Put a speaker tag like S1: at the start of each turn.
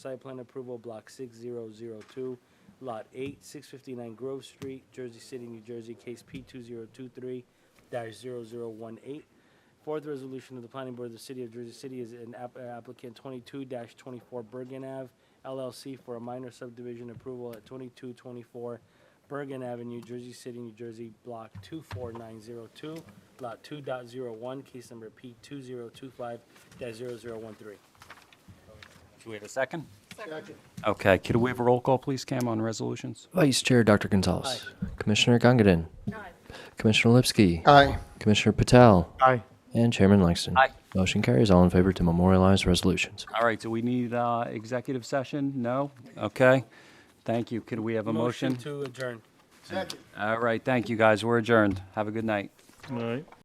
S1: Site plan approval, block six zero zero two, lot eight, six fifty-nine Grove Street, Jersey City, New Jersey, case P two zero two three dash zero zero one eight. Fourth resolution of the planning board of the city of Jersey City is an app- uh, applicant twenty-two twenty-four Bergen Ave LLC for a minor subdivision approval at twenty-two twenty-four Bergen Avenue, Jersey City, New Jersey, block two four nine zero two, lot two dot zero one, case number P two zero two five dash zero zero one three.
S2: Should we have a second?
S3: Second.
S2: Okay, could we have a roll call, please, Cam, on resolutions?
S4: Vice Chair Dr. Gonzalez. Commissioner Gongadin. Commissioner Lipsky.
S3: Aye.
S4: Commissioner Patel.
S3: Aye.
S4: And Chairman Langston.
S2: Aye.
S4: Motion carries all in favor to memorialize resolutions.
S2: All right, do we need uh, executive session? No? Okay, thank you. Could we have a motion?
S1: to adjourn.
S3: Second.
S2: All right, thank you, guys. We're adjourned. Have a good night.
S5: All right.